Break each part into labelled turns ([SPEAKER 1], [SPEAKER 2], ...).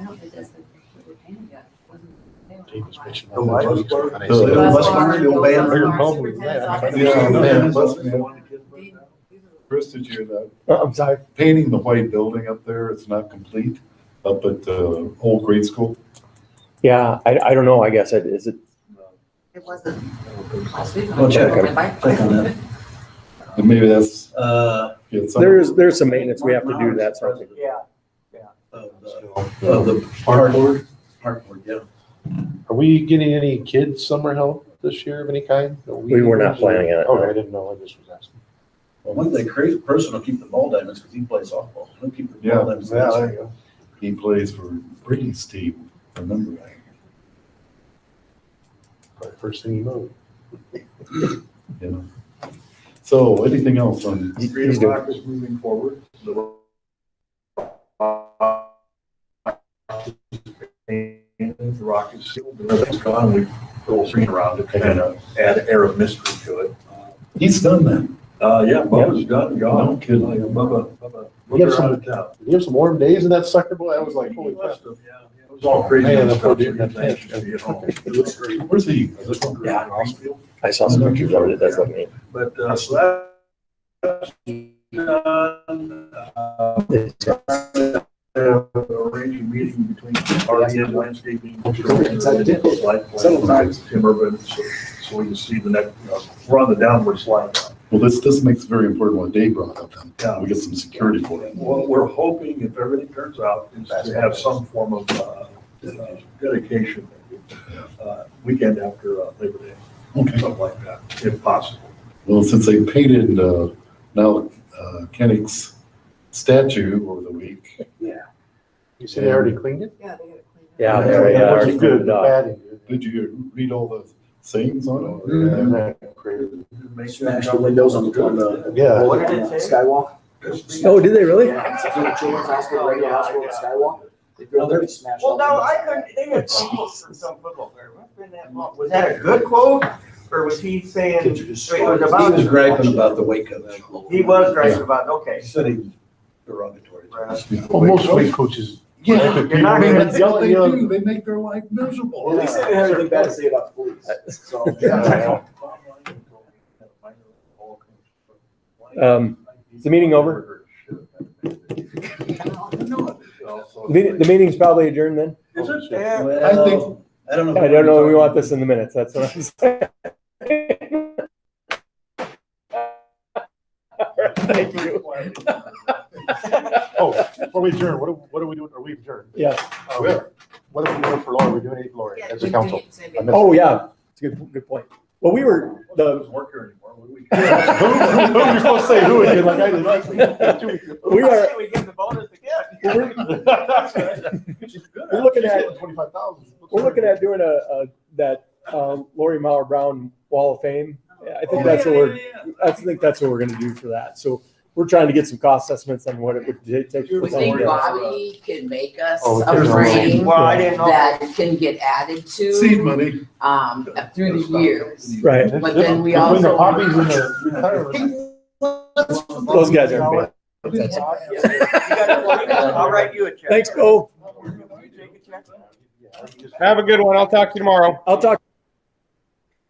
[SPEAKER 1] it doesn't, we're paying yet, wasn't. they were-
[SPEAKER 2] Cheapest bitch in
[SPEAKER 3] The what?
[SPEAKER 2] two weeks ago, and they
[SPEAKER 3] The-
[SPEAKER 2] said-
[SPEAKER 3] the
[SPEAKER 1] Bus
[SPEAKER 3] bus
[SPEAKER 1] bar,
[SPEAKER 3] barn,
[SPEAKER 1] the
[SPEAKER 3] the old
[SPEAKER 1] bus
[SPEAKER 3] band.
[SPEAKER 1] bar,
[SPEAKER 4] Bigger problem with
[SPEAKER 1] superintendent's
[SPEAKER 4] that.
[SPEAKER 1] office.
[SPEAKER 3] Yeah,
[SPEAKER 4] Yeah.
[SPEAKER 3] man, must be.
[SPEAKER 1] These- these are-
[SPEAKER 4] Chris, did you, the
[SPEAKER 5] Oh,
[SPEAKER 3] I'm sorry.
[SPEAKER 4] painting the white building up there, it's not complete, up at the old grade school?
[SPEAKER 5] Yeah, I, I don't know, I guess, it is it,
[SPEAKER 1] It wasn't last week.
[SPEAKER 3] I'll check it.
[SPEAKER 1] Bike.
[SPEAKER 3] Click on that.
[SPEAKER 4] And maybe that's,
[SPEAKER 3] Uh,
[SPEAKER 4] yeah, some-
[SPEAKER 5] there is, there's some maintenance we have to do to that sort of thing.
[SPEAKER 3] Yeah, yeah. Of the,
[SPEAKER 2] Still.
[SPEAKER 3] of the park board, park board, yeah.
[SPEAKER 2] Are we getting any kids summer help this year of any kind?
[SPEAKER 5] We were not planning on it, no.
[SPEAKER 2] Oh, I didn't know, I just was asking.
[SPEAKER 3] Well, one thing crazy person will keep the ball diamonds because he plays softball. He'll keep the
[SPEAKER 4] Yeah,
[SPEAKER 3] ball diamonds.
[SPEAKER 4] yeah, there you go. He plays for Brady's team, I remember that.
[SPEAKER 2] Probably First thing you know.
[SPEAKER 4] you know. So anything else on?
[SPEAKER 5] He- he's doing-
[SPEAKER 4] is moving forward. The rock is still, it's gone, we go swing around it, kind of add air of mystery to it. He's done that. Uh, yeah, Bubba's done, gone. No kidding. Bubba, Bubba.
[SPEAKER 2] Give some-
[SPEAKER 4] out of town.
[SPEAKER 2] Did you have some warm days in that sucker bowl? I was like, holy crap.
[SPEAKER 4] It was all crazy.
[SPEAKER 2] Man,
[SPEAKER 4] and
[SPEAKER 2] that poor
[SPEAKER 4] stuff,
[SPEAKER 2] dude in that
[SPEAKER 4] everything,
[SPEAKER 2] tank.
[SPEAKER 4] you know. It looks great. Where's he? Is it-
[SPEAKER 5] Yeah. I saw some pictures of it, it does look neat.
[SPEAKER 4] But, uh, so that. Uh, uh, Arrange a meeting between RDM landscaping. Sometimes timber, but so, so we can see the next, you know, we're on the downward slide. Well, this, this makes very important what Dave brought up, then. We get some security for it.
[SPEAKER 6] What we're hoping, if everything turns out, is to have some form of uh, uh, dedication uh, weekend after uh, Labor Day,
[SPEAKER 4] Okay.
[SPEAKER 6] something like that, if possible.
[SPEAKER 4] Well, since they painted, uh, now, uh, Kennick's statue over the week.
[SPEAKER 2] You said they already cleaned it?
[SPEAKER 1] Yeah, they got it cleaned up.
[SPEAKER 5] Yeah, there we
[SPEAKER 2] That
[SPEAKER 5] are.
[SPEAKER 2] was Good, the padding.
[SPEAKER 4] Did you read all the sayings on it?
[SPEAKER 5] Mm-hmm.
[SPEAKER 2] Yeah, that crazy.
[SPEAKER 3] Smash the windows on the, on the
[SPEAKER 2] Yeah.
[SPEAKER 7] What did it say?
[SPEAKER 3] skywalk.
[SPEAKER 5] Oh, did they really?
[SPEAKER 7] Yeah. Well,
[SPEAKER 3] Well,
[SPEAKER 7] no, I couldn't, they had some quotes from some football player. Must've been that long. Was that a good quote or was he saying?
[SPEAKER 3] He
[SPEAKER 7] Wait, it was about-
[SPEAKER 3] was griping about the wake up.
[SPEAKER 7] He was right about, okay.
[SPEAKER 3] He said he was derogatory.
[SPEAKER 7] Right.
[SPEAKER 2] Well, most weight coaches.
[SPEAKER 4] Yeah.
[SPEAKER 2] People-
[SPEAKER 7] You're not
[SPEAKER 4] I mean,
[SPEAKER 2] people-
[SPEAKER 4] that's what they
[SPEAKER 2] young-
[SPEAKER 4] do, they make their life miserable.
[SPEAKER 2] Well, at least they
[SPEAKER 3] didn't have anything bad to say about the police,
[SPEAKER 2] Yeah.
[SPEAKER 5] Um, is the meeting over? The meeting- the meeting's probably adjourned then?
[SPEAKER 6] Is it?
[SPEAKER 7] Yeah.
[SPEAKER 4] I think-
[SPEAKER 3] I don't know.
[SPEAKER 5] I don't know, we want this in the minutes, that's what I'm saying. All right, Thank you.
[SPEAKER 2] Oh, before we adjourn, what are, what are we doing? Are we adjourned?
[SPEAKER 5] Yeah.
[SPEAKER 2] Um, What are we doing for Lori? We're doing eight Lori
[SPEAKER 1] Yeah,
[SPEAKER 2] as
[SPEAKER 1] they
[SPEAKER 2] a
[SPEAKER 1] did
[SPEAKER 2] council.
[SPEAKER 1] it, so they-
[SPEAKER 2] I missed
[SPEAKER 5] Oh, yeah, it's a good, good point. Well, we were, the,
[SPEAKER 6] Work here anymore. What do we-
[SPEAKER 2] Yeah, Who, who, who are you supposed to say who again? Like I did last week. Two weeks ago.
[SPEAKER 5] we
[SPEAKER 7] I
[SPEAKER 5] are,
[SPEAKER 7] say we give the bonus again.
[SPEAKER 5] we're we're looking at,
[SPEAKER 2] Twenty-five thousand.
[SPEAKER 5] we're looking at doing a, a, that, um, Lori Mauer Brown Wall of Fame. Yeah, I think
[SPEAKER 7] Oh,
[SPEAKER 5] that's
[SPEAKER 7] yeah,
[SPEAKER 5] what we're,
[SPEAKER 7] yeah, yeah, yeah.
[SPEAKER 5] I think that's what we're gonna do for that, so we're trying to get some cost estimates on what it would ta- take. to
[SPEAKER 8] We
[SPEAKER 5] put something
[SPEAKER 8] think
[SPEAKER 5] together.
[SPEAKER 8] Bobby can make us
[SPEAKER 2] Oh,
[SPEAKER 8] a
[SPEAKER 2] there's a-
[SPEAKER 8] frame
[SPEAKER 7] Well, I didn't know.
[SPEAKER 8] that can get added
[SPEAKER 4] Seed
[SPEAKER 8] to,
[SPEAKER 4] money.
[SPEAKER 8] um, through the years.
[SPEAKER 5] Right,
[SPEAKER 8] But then we
[SPEAKER 2] Between the
[SPEAKER 8] also-
[SPEAKER 2] hobbies and the retirement.
[SPEAKER 5] those guys aren't bad.
[SPEAKER 7] You gotta- I'll write you a check.
[SPEAKER 5] Thanks, Bo.
[SPEAKER 7] You take a check?
[SPEAKER 9] Have a good one. I'll talk to you tomorrow.
[SPEAKER 5] I'll talk.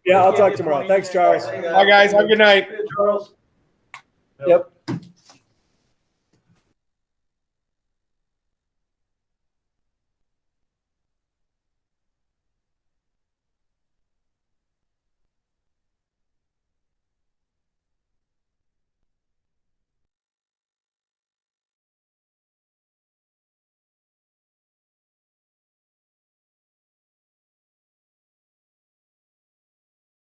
[SPEAKER 5] Yeah, I'll
[SPEAKER 7] Yeah,
[SPEAKER 5] talk
[SPEAKER 7] it's
[SPEAKER 5] tomorrow.
[SPEAKER 7] 20
[SPEAKER 5] Thanks, Charles.
[SPEAKER 7] minutes.
[SPEAKER 9] Bye, guys. Have a good night.
[SPEAKER 6] Charles?
[SPEAKER 5] Yep.